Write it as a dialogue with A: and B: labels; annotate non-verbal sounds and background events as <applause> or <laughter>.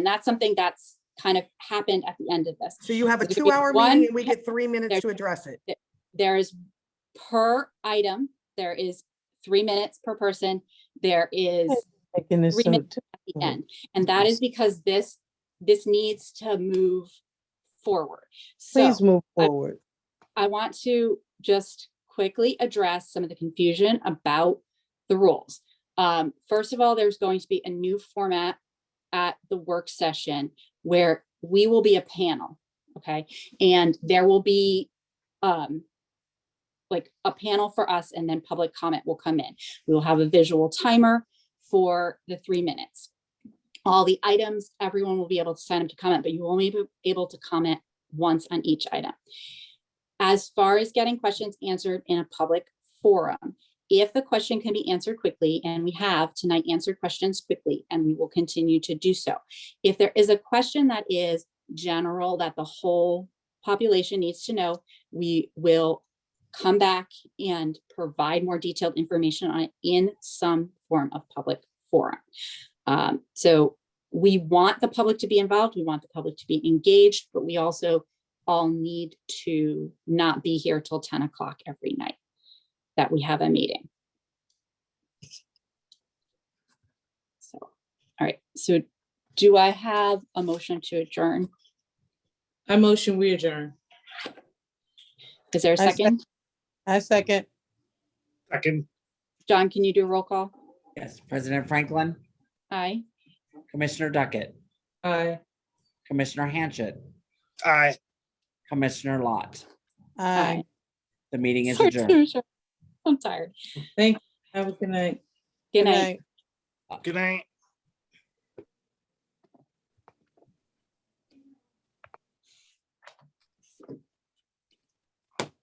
A: And that's something that's kind of happened at the end of this.
B: So you have a
A: It's gonna be
B: two-hour
A: one-
B: meeting and we get three minutes
A: There-
B: to address it.
A: There is per item, there is three minutes per person. There is
C: Making this
A: Three
C: so,
A: minutes. at the end. And that is because this, this needs to move forward. So
C: please move
A: I-
C: forward.
A: I want to just quickly address some of the confusion about the rules. Um, first of all, there's going to be a new format at the work session where we will be a panel, okay? And there will be, um, like a panel for us and then public comment will come in. We will have a visual timer for the three minutes. All the items, everyone will be able to sign up to comment, but you will only be able to comment once on each item. As far as getting questions answered in a public forum, if the question can be answered quickly, and we have tonight answered questions quickly, and we will continue to do so. If there is a question that is general that the whole population needs to know, we will come back and provide more detailed information on it in some form of public forum. Um, so we want the public to be involved, we want the public to be engaged, but we also all need to not be here till ten o'clock every night that we have a meeting. So, all right, so do I have a motion to adjourn?
D: I motion we adjourn.
A: Is there a
C: I sec-
A: second?
C: I second.
E: Second,
A: John, can you do a roll call?
F: Yes, President Franklin,
A: Aye.
F: Commissioner Duckett,
D: Aye.
F: Commissioner Hanchett,
E: aye.
F: Commissioner Lott.
C: Aye.
F: The meeting is
A: Sorry,
F: adjourned.
A: sorry, sorry. <laughs> I'm tired.
D: Thank you. Have a good night.
A: Good
C: Good
A: night.
C: night.
E: Good night.